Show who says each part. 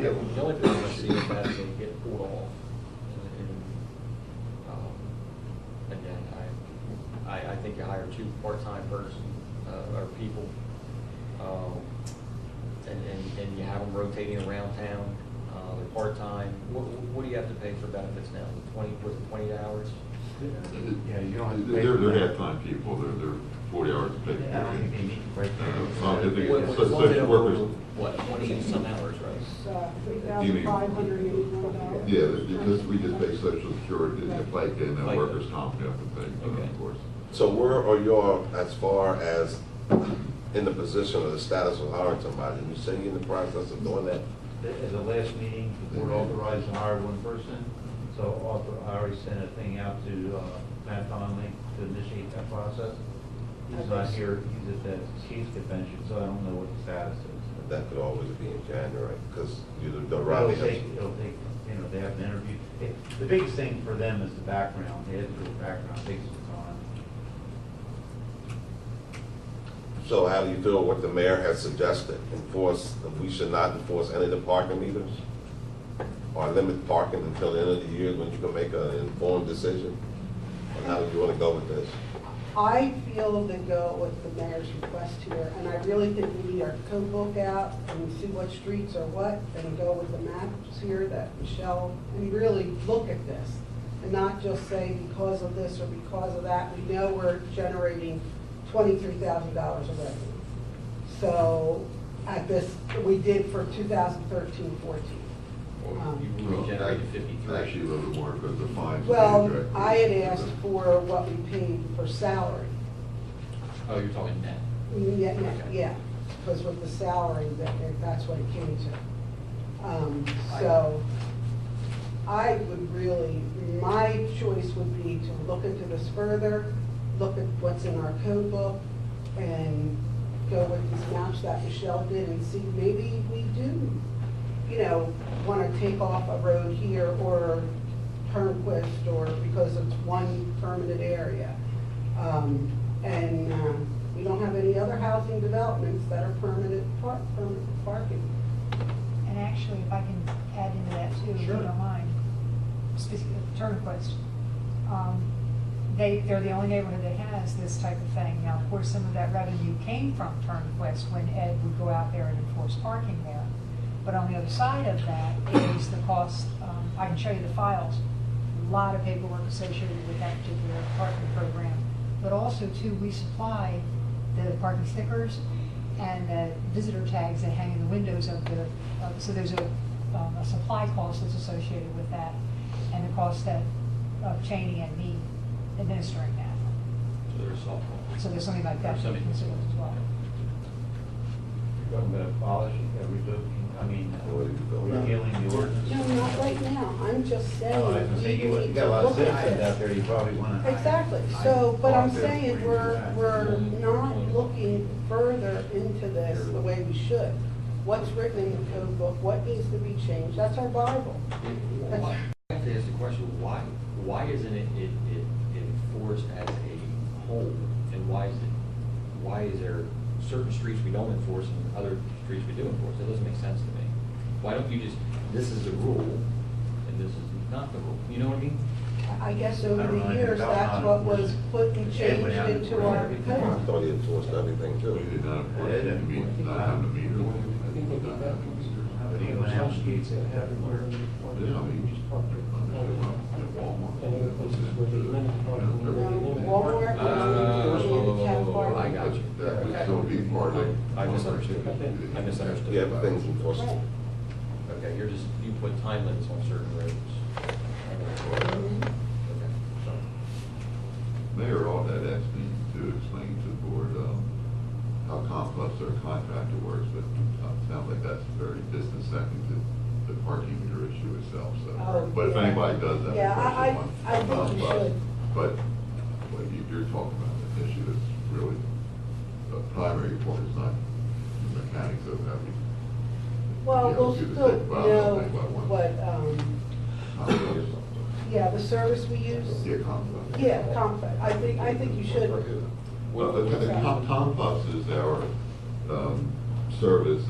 Speaker 1: Yeah.
Speaker 2: The only thing I want to see is that they get pulled off. And- and, um, Again, I, I, I think you hire two part-time person, uh, or people, um, and, and, and you have them rotating around town, uh, they're part-time. What, what do you have to pay for benefits now? Twenty, was it twenty hours?
Speaker 3: Yeah, you don't have to pay
Speaker 1: They're,
Speaker 3: for
Speaker 1: they're
Speaker 3: that.
Speaker 1: half-time people, they're, they're forty hours a day.
Speaker 3: I don't think they need to break that.
Speaker 1: Uh, I think
Speaker 2: What-
Speaker 1: it's
Speaker 2: what-
Speaker 1: such-
Speaker 2: what was it
Speaker 1: such
Speaker 2: over,
Speaker 1: workers-
Speaker 2: What, twenty and some hours, right?
Speaker 4: It's three thousand five hundred eighty-four dollars.
Speaker 1: Yeah, because we just pay social security and FICA and then workers' comp, and everything, but
Speaker 2: Okay.
Speaker 1: of course.
Speaker 5: So where are y'all as far as in the position or the status of hiring somebody? You say you're in the process of doing that?
Speaker 3: At the last meeting, the board authorized to hire one person, so author- I already sent a thing out to uh, Matt Donnelly to initiate that process. He's not here, he's at the Chiefs Convention, so I don't know what the status is.
Speaker 5: That could always be in January, because you don't know
Speaker 3: It'll
Speaker 5: Robbie
Speaker 3: take,
Speaker 5: has.
Speaker 3: it'll take, you know, they have an interview. It- The biggest thing for them is the background, they have to do a background, takes some time.
Speaker 5: So how do you feel what the mayor has suggested? Enforce, we should not enforce any of the parking meters? Or limit parking until the end of the year when you can make an informed decision? And how do you want to go with this?
Speaker 4: I feel to go with the mayor's request here, and I really think we need our code book out and see what streets are what, and go with the maps here that Michelle, and really look at this, and not just say because of this or because of that, we know we're generating twenty-three thousand dollars of revenue. So, at this, we did for 2013-14.
Speaker 2: Or you
Speaker 1: Well,
Speaker 2: regenerated
Speaker 1: act-
Speaker 2: fifty-three?
Speaker 1: Actually, a little more because the fines. are
Speaker 4: Well,
Speaker 1: directly-
Speaker 4: I had asked for what we paid for salary.
Speaker 2: Oh, you're talking net?
Speaker 4: Yeah, yeah, yeah, because with the salary, that, that's what it came to. Um, so, I would really, my choice would be to look into this further, look at what's in our code book, and go with these maps that Michelle did and see, maybe we do, you know, wanna take off a road here or Turnquist or, because it's one permanent area. Um, and, um, we don't have any other housing developments that are permanent park, permanent parking.
Speaker 6: And actually, if I can add into that too, if you
Speaker 4: Sure.
Speaker 6: don't mind, speaking of Turnquist, um, they, they're the only neighborhood that has this type of thing. Now, of course, some of that revenue came from Turnquist when Ed would go out there and enforce parking there. But on the other side of that is the cost, um, I can show you the files, a lot of paperwork associated with that particular parking program. But also too, we supply the parking stickers and the visitor tags that hang in the windows of the, of- so there's a, um, a supply cost that's associated with that and the cost that, of Cheney and me administering that.
Speaker 2: So there's softball.
Speaker 6: So there's something like that.
Speaker 2: There's
Speaker 6: to
Speaker 2: something.
Speaker 6: consider as well.
Speaker 3: You're talking about abolishing, uh, revoking, I mean, uh,
Speaker 5: What do you go about?
Speaker 3: repealing the ordinance.
Speaker 4: No, not right now, I'm just saying,
Speaker 3: No, Oh, I was gonna say,
Speaker 4: we
Speaker 3: you you
Speaker 4: need
Speaker 3: got
Speaker 4: to
Speaker 3: a lot of
Speaker 4: look at
Speaker 3: citizens out
Speaker 4: this.
Speaker 3: there, you probably wanna.
Speaker 4: Exactly, so, but I'm
Speaker 3: Talk to them
Speaker 4: saying,
Speaker 3: before you do
Speaker 4: we're,
Speaker 3: that.
Speaker 4: we're not looking further into this the way we should. What's written in the code book, what needs to be changed, that's our Bible.
Speaker 2: Why- I have to ask the question, why, why isn't it, it, it it enforced as a whole? And why is it, why is there certain streets we don't enforce and other streets we do enforce? That doesn't make sense to me. Why don't you just, this is the rule and this is not the rule, you know what I mean?
Speaker 4: I guess
Speaker 3: I
Speaker 4: over
Speaker 3: don't know
Speaker 4: the
Speaker 3: anything
Speaker 4: years,
Speaker 3: about
Speaker 4: that's
Speaker 3: law
Speaker 4: what was
Speaker 3: enforcement.
Speaker 4: put and
Speaker 3: Ed
Speaker 4: changed
Speaker 3: went out and
Speaker 4: into our
Speaker 3: wrote
Speaker 5: I
Speaker 3: everything.
Speaker 4: code.
Speaker 5: thought he enforced everything
Speaker 1: We
Speaker 5: too.
Speaker 1: did not enforce it, I mean, not have the meter. Not have the meter.
Speaker 3: But he went out and did that everywhere.
Speaker 1: Yeah, I mean, just park it on the way up at Walmart. That was it. You know, everything.
Speaker 4: Walmart,
Speaker 2: Uh,
Speaker 4: Walmart, Town Park.
Speaker 2: I got you.
Speaker 1: That would still be part of.
Speaker 2: I misunderstood. I misunderstood.
Speaker 5: Yeah, but things enforced.
Speaker 4: Right.
Speaker 2: Okay, you're just, you put time limits on certain roads. Mm-hmm.
Speaker 4: Mhm.
Speaker 2: Okay, so.
Speaker 1: Mayor Aldad asked me to explain to the board um, how complex their contractor works, but uh, it sounds like that's very distant second to the parking meter issue itself, so.
Speaker 4: Oh,
Speaker 1: But if
Speaker 4: yeah.
Speaker 1: anybody does that.
Speaker 4: Yeah, I- I-
Speaker 1: question,
Speaker 4: I think
Speaker 1: um,
Speaker 4: you
Speaker 1: but-
Speaker 4: should.
Speaker 1: But what you- you're talking about, an issue that's really a primary point, it's not the mechanics of having.
Speaker 4: Well,
Speaker 1: Yeah,
Speaker 4: we'll
Speaker 1: do the
Speaker 4: still
Speaker 1: same. Well, I don't
Speaker 4: know
Speaker 1: think about one.
Speaker 4: what, um, yeah, the service we use.
Speaker 1: Yeah, complex.
Speaker 4: Yeah, conflict, I think, I think you should
Speaker 1: Well, the, the Tom- Tom Puffs is our, um, service